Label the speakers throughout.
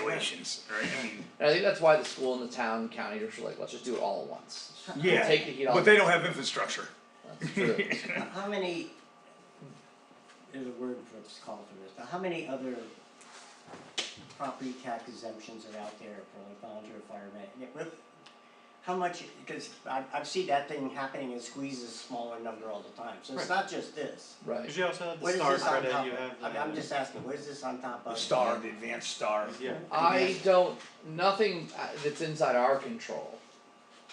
Speaker 1: situations, right? I mean,
Speaker 2: And I think that's why the school and the town and county are just like, let's just do it all at once. Just
Speaker 1: yeah,
Speaker 2: Take the heat off.
Speaker 1: but they don't have infrastructure.
Speaker 2: That's true.
Speaker 3: How many, there's a word for it's called for this, but how many other property tax exemptions are out there for like volunteer firemen? Yeah, what- How much, because I, I see that thing happening, it squeezes smaller number all the time, so it's
Speaker 4: Right.
Speaker 3: not just this.
Speaker 2: Right.
Speaker 4: Cause you also have the
Speaker 3: What is
Speaker 4: star
Speaker 3: this on
Speaker 4: credit,
Speaker 3: top
Speaker 4: you
Speaker 3: of?
Speaker 4: have the.
Speaker 3: I'm, I'm just asking, what is this on top
Speaker 1: The
Speaker 3: of?
Speaker 1: star, the advanced star.
Speaker 4: Yeah,
Speaker 2: I don't, nothing uh, that's inside our control.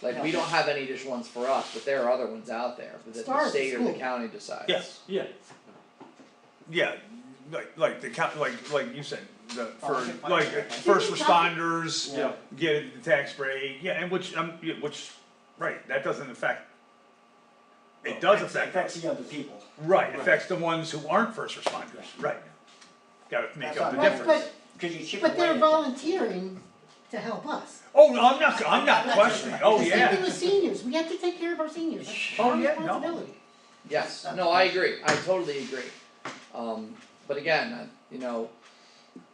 Speaker 2: Like, we don't have any additional ones for us, but there are other ones out there, but that
Speaker 3: Stars
Speaker 2: the
Speaker 3: at
Speaker 2: state or the
Speaker 3: school.
Speaker 2: county decides.
Speaker 1: Yes.
Speaker 4: yeah,
Speaker 1: Yeah, like like the count, like like you said, the for
Speaker 3: Volunteer fire
Speaker 1: like
Speaker 3: service.
Speaker 1: first
Speaker 5: You can count
Speaker 1: responders
Speaker 4: yeah,
Speaker 1: get the tax break. Yeah, and which um yeah, which right that doesn't affect. It does affect
Speaker 3: Oh, Affects
Speaker 1: us.
Speaker 3: the other people.
Speaker 1: Right,
Speaker 4: Right.
Speaker 1: affects the ones who aren't first responders. Right. Got to make
Speaker 3: That's
Speaker 1: up
Speaker 3: what
Speaker 1: the
Speaker 3: I'm
Speaker 5: But,
Speaker 3: saying.
Speaker 1: difference.
Speaker 5: but,
Speaker 3: Cause you chip away.
Speaker 5: but they're
Speaker 3: at-
Speaker 5: volunteering to help us.
Speaker 1: Oh, no, I'm not. I'm not
Speaker 3: That's
Speaker 1: questioning.
Speaker 3: okay.
Speaker 1: Oh
Speaker 5: The
Speaker 1: yeah.
Speaker 5: Same thing with seniors, we have to take care of our seniors, that's
Speaker 1: Oh,
Speaker 5: our
Speaker 1: yeah, no.
Speaker 5: responsibility.
Speaker 2: Yes,
Speaker 3: That's
Speaker 2: no,
Speaker 3: the
Speaker 2: I
Speaker 3: question.
Speaker 2: agree, I totally agree. Um, but again, I- you know. um,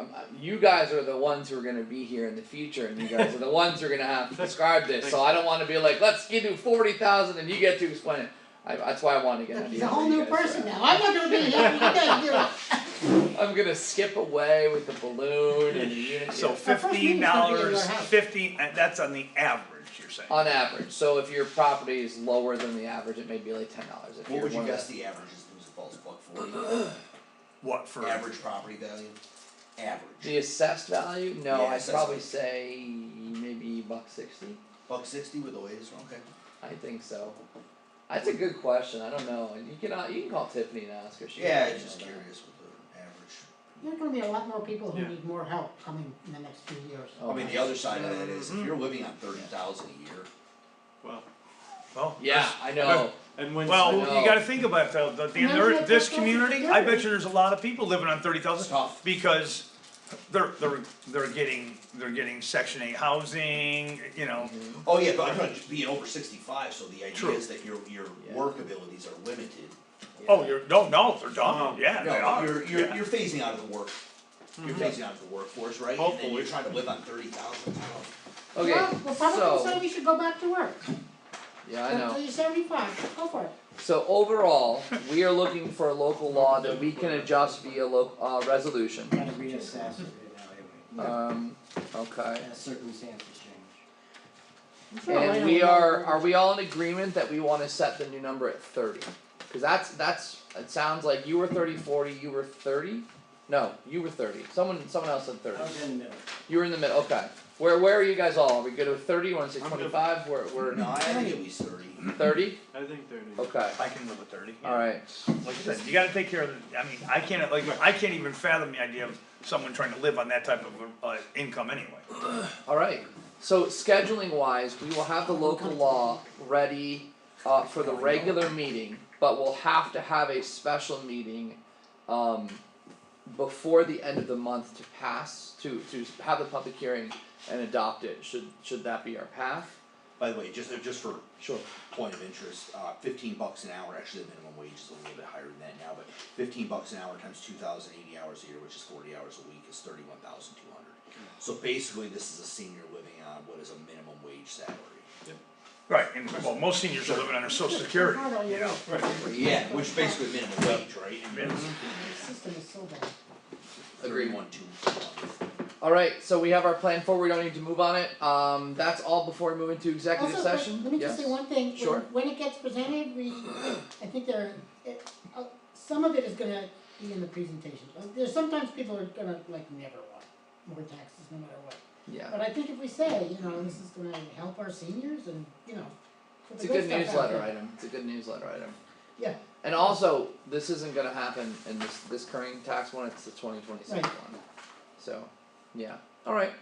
Speaker 2: uh, You guys are the ones who are gonna be here in the future, and you guys are the ones who are gonna have to
Speaker 4: That's-
Speaker 2: describe this, so I don't wanna be like, let's give you forty thousand and you get to explain it. I, that's why I wanna get an
Speaker 5: Look,
Speaker 2: idea.
Speaker 5: He's a
Speaker 2: of
Speaker 5: whole
Speaker 2: what you
Speaker 5: new
Speaker 2: guys are
Speaker 5: person
Speaker 2: at.
Speaker 5: now, I'm not gonna be here, you gotta do it.
Speaker 2: I'm gonna skip away with the balloon and the unit.
Speaker 1: So
Speaker 2: yeah,
Speaker 5: first
Speaker 1: fifteen
Speaker 5: meeting's gonna be in your
Speaker 1: dollars,
Speaker 5: house.
Speaker 1: fifteen. uh, That's on the average. You're saying.
Speaker 2: on average, so if your property is lower than the average, it may be like ten dollars. If
Speaker 6: What
Speaker 2: you're
Speaker 6: would you
Speaker 2: one of
Speaker 6: guess
Speaker 2: the-
Speaker 6: the average is, was a false buck for,
Speaker 1: What for?
Speaker 6: average property value, average,
Speaker 2: The assessed value? No,
Speaker 6: Yeah,
Speaker 2: I'd
Speaker 6: assessed
Speaker 2: probably
Speaker 6: value.
Speaker 2: say maybe buck sixty.
Speaker 6: buck sixty with Oasis, okay.
Speaker 2: I think so. That's a good question. I don't know. And you can uh, you can call Tiffany and ask her. She
Speaker 6: Yeah,
Speaker 2: might
Speaker 6: I'm just
Speaker 2: know that.
Speaker 6: curious with the average.
Speaker 5: There are gonna be a lot more people who
Speaker 4: Yeah.
Speaker 5: need more help coming in the next few years.
Speaker 2: Oh,
Speaker 6: I mean,
Speaker 2: my-
Speaker 6: the other side of that
Speaker 1: Mm-hmm.
Speaker 6: is, if you're living on thirty thousand a year,
Speaker 4: well,
Speaker 1: Well,
Speaker 2: Yeah, I know.
Speaker 4: and when.
Speaker 1: Well,
Speaker 2: I know.
Speaker 1: you gotta think about it though, the, the,
Speaker 5: Imagine
Speaker 1: there,
Speaker 5: what
Speaker 1: this
Speaker 5: they're going
Speaker 1: community,
Speaker 5: through.
Speaker 1: I bet you there's a lot of people living on thirty thousand.
Speaker 6: It's tough.
Speaker 1: Because they're, they're, they're getting, they're getting section eight housing, you know,
Speaker 6: oh yeah, but I'm talking just being over sixty-five, so the idea
Speaker 1: True.
Speaker 6: is that your, your
Speaker 2: Yeah.
Speaker 6: work abilities are limited.
Speaker 1: oh, you're, no, no, they're
Speaker 4: Oh.
Speaker 1: done, yeah, they
Speaker 6: No,
Speaker 1: are,
Speaker 6: you're, you're,
Speaker 1: yeah. Mm-hmm.
Speaker 6: you're phasing out of the work, you're phasing out of the workforce, right? And then
Speaker 4: Hopefully.
Speaker 6: you're trying to live on thirty thousand, I don't.
Speaker 2: Okay,
Speaker 5: Well, Republicans say
Speaker 2: so
Speaker 5: we should go back to work,
Speaker 2: yeah, I know.
Speaker 5: until you're seventy-five, go for it.
Speaker 2: So overall, we are looking for a local law that we can adjust via lo- uh, resolution.
Speaker 3: Gotta reassess and reevaluate,
Speaker 2: Um, okay.
Speaker 3: as circumstances change.
Speaker 2: And we are, are we all in agreement that we wanna set the new number at thirty? Cause that's, that's, it sounds like you were thirty, forty, you were thirty? No, you were thirty, someone, someone else said thirty,
Speaker 3: I was in the middle.
Speaker 2: you were in the middle, okay. Where, where are you guys all, are we good with thirty, wanna say
Speaker 4: I'm good.
Speaker 2: twenty-five, we're, we're
Speaker 6: No, I think at least thirty.
Speaker 2: thirty,
Speaker 4: I think thirty.
Speaker 2: okay,
Speaker 1: I can live with thirty, yeah.
Speaker 2: alright,
Speaker 1: like I said, you gotta take care of, the I mean, I can't, like, I can't even fathom the idea of someone trying to live on that type of, uh, income anyway.
Speaker 2: alright. So scheduling wise, we will have the local law ready, uh, for the regular meeting, but we'll have to have a special meeting, um, before the end of the month to pass, to to have the public hearing and adopt it, should should that be our path?
Speaker 6: By the way, just, uh, just for
Speaker 2: Sure.
Speaker 6: point of interest, uh, fifteen bucks an hour, actually the minimum wage is a little bit higher than that now, but fifteen bucks an hour times two thousand eighty hours a year, which is forty hours a week, is thirty-one thousand two hundred. So basically, this is a senior living on what is a minimum wage salary.
Speaker 1: Right, and, well, most seniors are living under social security,
Speaker 5: Hard on
Speaker 1: you
Speaker 5: your
Speaker 1: know,
Speaker 5: own.
Speaker 6: Yeah, which basically minimum wage, right?
Speaker 1: Yeah.
Speaker 5: Your system is so bad.
Speaker 2: Agreed.
Speaker 6: Thirty-one two.
Speaker 2: Alright, so we have our plan forward, we don't need to move on it, um that's all before we move into executive
Speaker 5: Also, let-
Speaker 2: session,
Speaker 5: Let me
Speaker 2: yes?
Speaker 5: just say one thing,
Speaker 2: Sure.
Speaker 5: when, when it gets presented, we, I think there, it, uh, some of it is gonna be in the presentation. Uh, There's sometimes people are gonna like never want more taxes, no matter what.
Speaker 2: Yeah,
Speaker 5: But I think if we say, you know, this is gonna help our seniors and, you know, put
Speaker 2: it's
Speaker 5: the
Speaker 2: a good
Speaker 5: stuff out
Speaker 2: newsletter
Speaker 5: there.
Speaker 2: item, it's a good newsletter item.
Speaker 5: Yeah.
Speaker 2: And also, this isn't gonna happen in this this current tax one, it's the twenty twenty six
Speaker 5: Right.
Speaker 2: one, so, yeah, alright.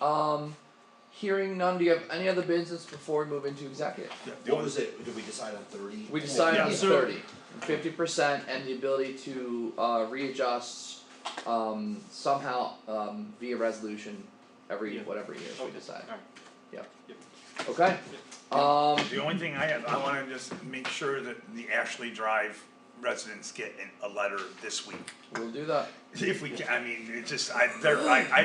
Speaker 2: Um hearing none, do you have any other business before we move into executive?
Speaker 6: What was it, did we decide on thirty?
Speaker 2: We decided on
Speaker 1: Yeah,
Speaker 4: so-
Speaker 2: thirty, fifty percent and the ability to uh readjust um somehow um via resolution every
Speaker 4: Yeah.
Speaker 2: whatever year we
Speaker 4: Okay.
Speaker 2: decide.
Speaker 4: Alright.
Speaker 2: Yep.
Speaker 4: Yep.
Speaker 2: Okay, um
Speaker 1: The only thing I had, I wanna just make sure that the Ashley Drive residents get an- a letter this week.
Speaker 2: we'll do that.
Speaker 1: If we can, I mean, it just, I, there, I, I